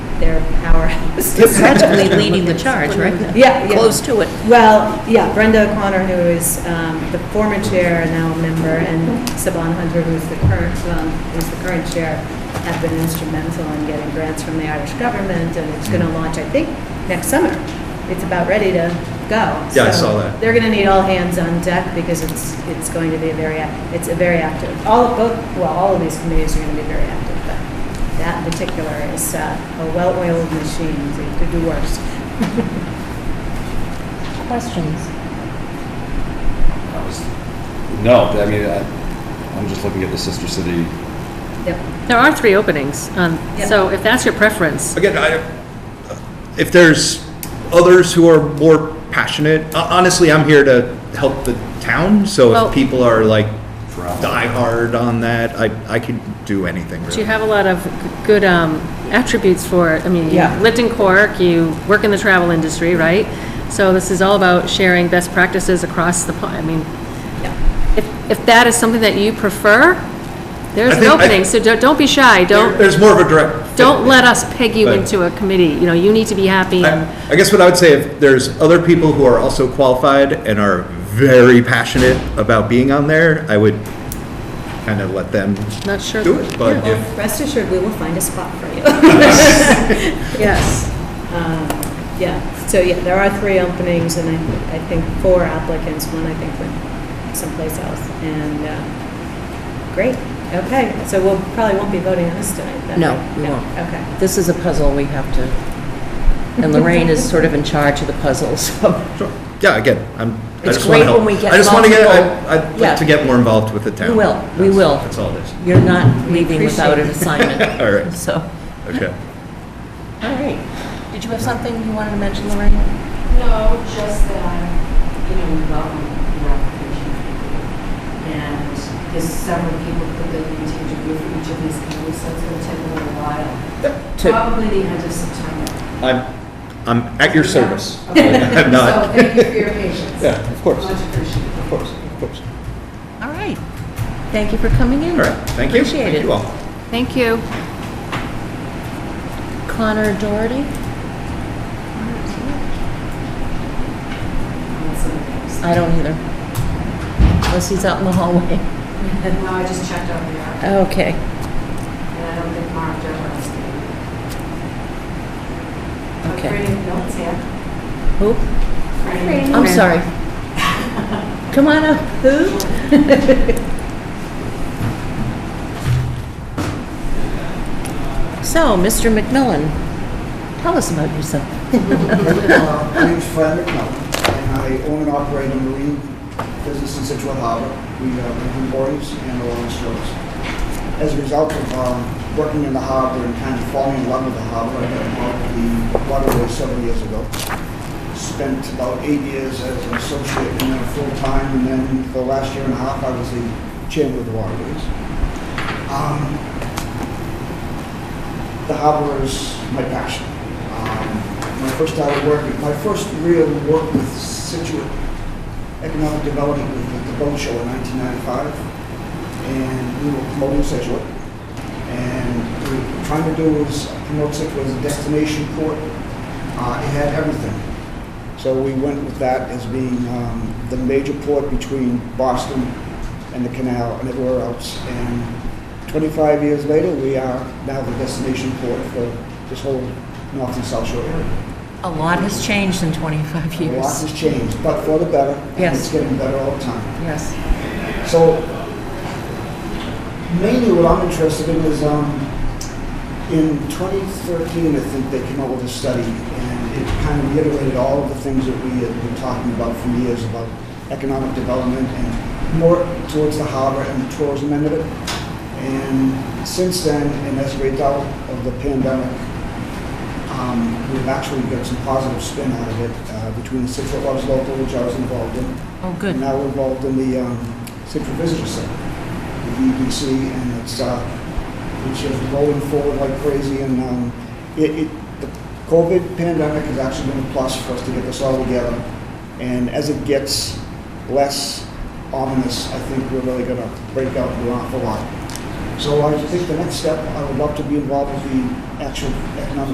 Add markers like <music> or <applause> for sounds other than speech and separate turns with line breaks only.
You're practically leading the charge, right?
Yeah, yeah.
Close to it.
Well, yeah, Brenda O'Connor, who is um, the former chair and now a member, and Saban Hunter, who's the current, um, who's the current chair, have been instrumental in getting grants from the Irish government, and it's
Mm-hmm.
going to launch, I think, next summer. It's about ready to go.
Yeah,
So
I saw that.
They're going to need all hands on deck because it's, it's going to be a very, ac- it's a very active, all of both, well, all of these committees are going to be very active, but that in particular is uh, a well-oiled machine, it could do worse.
Questions?
I was- No, I mean, I, I'm just looking at the sister city.
Yep.
There are three openings, um,
Yeah.
so if that's your preference,
Again, I, if there's others who are more passionate, ho- honestly, I'm here to help the town, so
Well-
if people are like
Drama.
diehard on that, I, I could do anything
but you
really.
have a lot of good um, attributes for, it. I mean, you
Yeah.
lived in Cork, you work in the travel industry, right? So this is all about sharing best practices across the, po- I mean, if, if that is something that you prefer, there's
I
an
think I-
opening, so don't, don't be shy,
There-
don't,
There's more of a direct. fit.
don't let us peg you
Right.
into a committee, you know, you need to be happy and
I I guess what I would say, if there's other people who are also qualified and are very passionate about being on there, I would kind of let them
not sure.
do it, but
Well,
if,
Rest assured, we will find a spot for you. <laughs> Yes. Um, Yeah, so yeah, there are three openings, and I, I think four applicants, one I think went someplace else, and, uh, great, okay, so we'll, probably won't be voting on this tonight, then?
No,
right?
we won't.
Okay,
This is a puzzle we have to, and Lorraine is sort of in charge of the puzzle, so
sure. yeah, again, I'm, I
It's
just want to
great
help.
when we get
I just want to get,
multiple-
I- I'd
Yeah.
like to get more involved with the town.
We will, we
That's-
will.
That's all it is.
you're not leaving without an
appreciate it.
assignment. <laughs>
All right.
So,
Okay.
all right. Did you have something you wanted to mention, Lorraine?
No, just that, you know, we welcome your application. And there's several people that they need to interview for each of these companies, so it's gonna take a little while.
To,
Probably the end of September.
I'm, I'm at your service.
<laughs> Okay.
I'm
So
not,
thank you for your patience.
<laughs> yeah, of course,
Much
of
appreciated.
course, of course.
all right. Thank you for coming in.
All right, thank you.
Appreciate
Thank
it.
you all.
Thank you.
Connor Doherty? I don't either. Unless he's out in the hallway.
And now I just checked over there,
Okay.
and I don't think Mark Devereux is there.
Okay.
Freddie, no, it's here.
Who?
Freddie.
I'm sorry. Come on up. Who? <laughs> So, Mr. McMillan, tell us about yourself.
Uh, My name's Fred McMillan, and I own and operate a marine business in Situate Harbor. We uh, we do buoys and oil and stores. As a result of um, working in the harbor and kind of falling in love with the harbor, I got involved with the waterway several years ago. Spent about eight years as an associate and then full-time, and then for the last year and a half, I was the chairman of the waterways. Um, the harbor is my passion. Um, When I first started working, my first real work with Situate Economic Development was at the boat show in 1995. And we were promoting Situate. And what we were trying to do was promote Situate as a destination port. Uh, It had everything. So we went with that as being um, the major port between Boston and the canal and everywhere else. And 25 years later, we are now the destination port for this whole north and south shore area.
A lot has changed in 25
A lot
years.
has changed, but for the better. and
Yes.
It's getting better all the time.
Yes.
So mainly what I'm interested in is, um, in 2013, I think they came out with a study and it kind of reiterated all of the things that we had been talking about for years about economic development and more towards the harbor and the tourism end of it. And since then, and as a result of the pandemic, um, we've actually got some positive spin out of it, uh, between the Situate Loves Local, which I was involved in,
Oh, good.
now we're involved in the um, Central Visitor Center, the EBC, and it's, uh, which is rolling forward like crazy, and um, it, it, the COVID pandemic has actually been a plus for us to get this all together, and as it gets less ominous, I think we're really gonna break out and do an awful lot. So I think the next step, I would love to be involved with the actual economic